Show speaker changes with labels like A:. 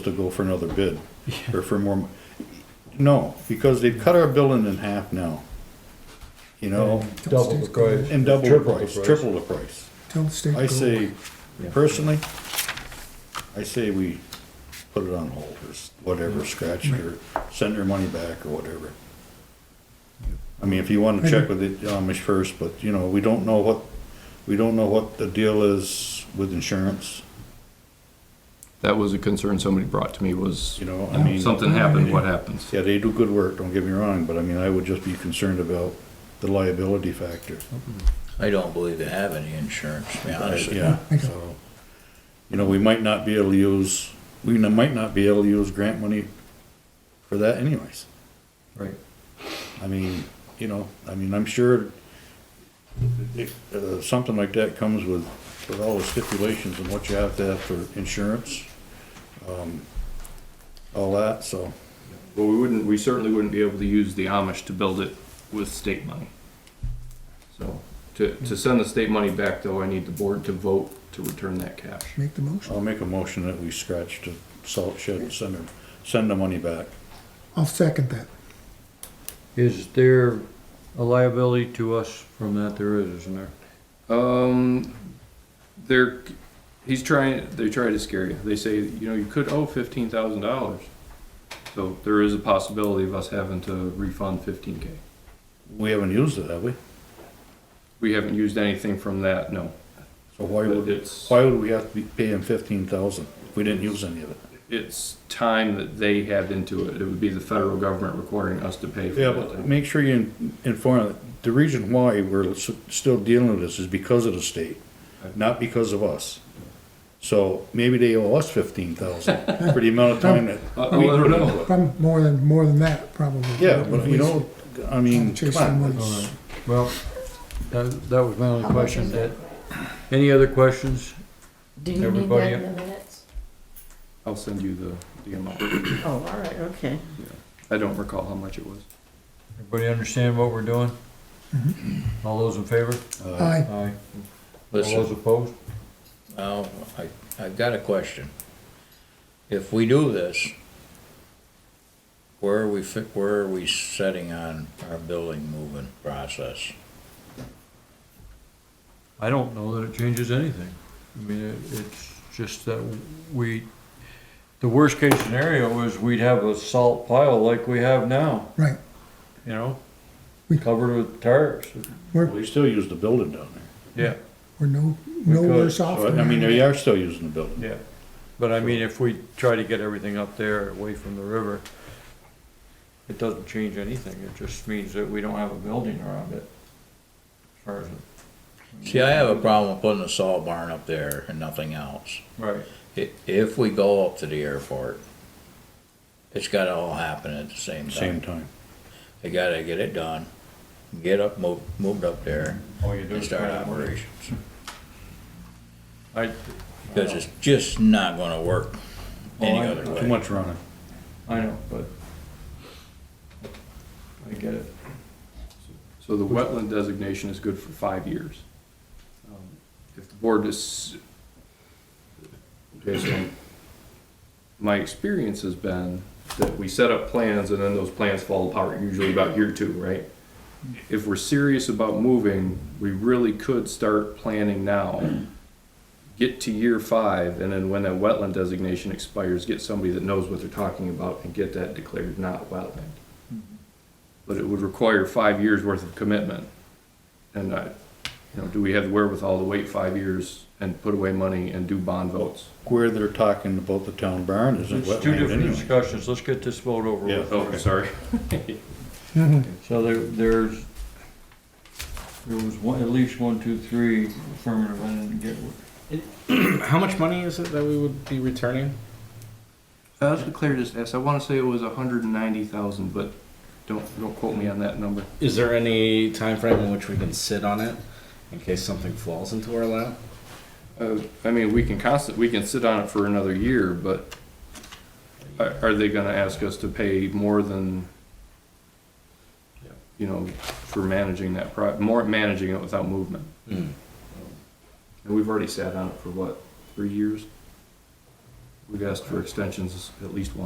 A: to go for another bid, or for more, mo- no, because they've cut our billing in half now. You know,
B: Double the price.
A: and double the
B: Triple the
A: price, triple the price.
C: Tell the state.
A: I
C: go.
A: say, personally, I say we put it on hold, or s- whatever, scratch it, or send their money back, or whatever. I mean, if you wanna check with the Amish first, but, you know, we don't know what, we don't know what the deal is with insurance,
D: That was a concern somebody brought to me was,
A: you know, I mean.
D: something happened, what happens?
A: Yeah, they do good work, don't get me wrong, but I mean, I would just be concerned about the liability factor.
E: I don't believe they have any insurance, to be honest with you.
A: Yeah, so, you know, we might not be able to use, we n- might not be able to use grant money for that anyways.
B: Right.
A: I mean, you know, I mean, I'm sure if, uh, something like that comes with, with all the stipulations and what you have to have for insurance, um, all that, so.
D: Well, we wouldn't, we certainly wouldn't be able to use the Amish to build it with state money. So, to, to send the state money back though, I need the board to vote to return that cash.
C: Make the motion.
A: I'll make a motion that we scratch the salt shed and send them, send the money back.
C: I'll second that.
B: Is there a liability to us from that? There is, isn't there?
D: Um, they're, he's trying, they try to scare you. They say, you know, you could owe fifteen thousand dollars. So there is a possibility of us having to refund fifteen K.
A: We haven't used it, have we?
D: We haven't used anything from that, no.
A: So why
D: But
A: would,
D: it's,
A: why would we have to be paying fifteen thousand if we didn't use any of it?
D: it's time that they had into it. It would be the federal government requiring us to pay for
A: Yeah, but
D: that.
A: make sure you in- inform, the reason why we're s- still dealing with this is because of the state, not because of us. So maybe they owe us fifteen thousand for the amount of time that.
D: I- I Uh, don't know.
A: we-
C: Probably more than, more than that, probably.
A: Yeah, but you know, I mean,
C: Chase
A: come
C: them
A: on,
C: with-
A: it's-
B: Well, that, that was my only question. That- Any other questions?
F: Do you need
B: Everybody-
F: that in the minutes?
D: I'll send you the, the amount.
F: Oh, all right, okay.
D: I don't recall how much it was.
B: Everybody understand what we're doing?
A: Mm-hmm.
B: All those in favor?
A: uh,
C: Aye,
B: Aye. All
E: Listen.
B: those opposed?
E: Now, I, I've got a question. If we do this, where are we fi, where are we setting on our building moving process?
B: I don't know that it changes anything. I mean, it- it's just that we, the worst case scenario is we'd have a salt pile like we have now,
C: right.
B: you know?
C: We-
B: Covered with tires.
A: we still use the building down there.
B: Yeah.
C: We're no, no
B: Because-
C: worse off.
A: So, uh, I
C: than
A: mean,
C: that.
A: they are still using the building.
B: Yeah, but I mean, if we try to get everything up there away from the river, it doesn't change anything, it just means that we don't have a building around it. As far as, it-
E: See, I have a problem with putting a saw barn up there and nothing else.
B: right,
E: I, if we go up to the airport, it's gotta all happen at the same
A: Same
E: time.
A: time.
E: They gotta get it done, get up, moved, moved up there,
B: all you do
E: and
B: is.
E: start
B: try to-
E: operations.
B: I,
E: Because it's just not gonna work any
B: Well, I-
E: other
A: Too
E: way.
A: much running.
B: I know, but I get it.
D: So the wetland designation is good for five years. Um, If the board is, okay, so my experience has been that we set up plans and then those plans fall apart, usually about year two, right? If we're serious about moving, we really could start planning now. Get to year five, and then when that wetland designation expires, get somebody that knows what they're talking about and get that declared not wetland but it would require five years worth of commitment. And I, you know, do we have the wherewithal to wait five years and put away money and do bond votes?
A: Where they're talking about the town barn isn't
B: It's two
A: wetland
B: different
A: anyway.
B: discussions, let's get this vote over
A: Yeah.
B: with.
D: Oh, sorry.
B: So there, there's, there was one, at least one, two, three affirmative, I didn't get one.
G: How much money is it that we would be returning?
D: I was declared as S, I wanna say it was hundred and ninety thousand, but don't, don't quote me on that number.
G: Is there any time frame in which we can sit on it in case something falls into our lap?
D: Uh, I mean, we can constant, we can sit on it for another year, but are, are they gonna ask us to pay more than, you know, for managing that pro, more managing it without movement?
G: Mm.
D: And we've already sat on it for what, three years? We've asked for extensions at least once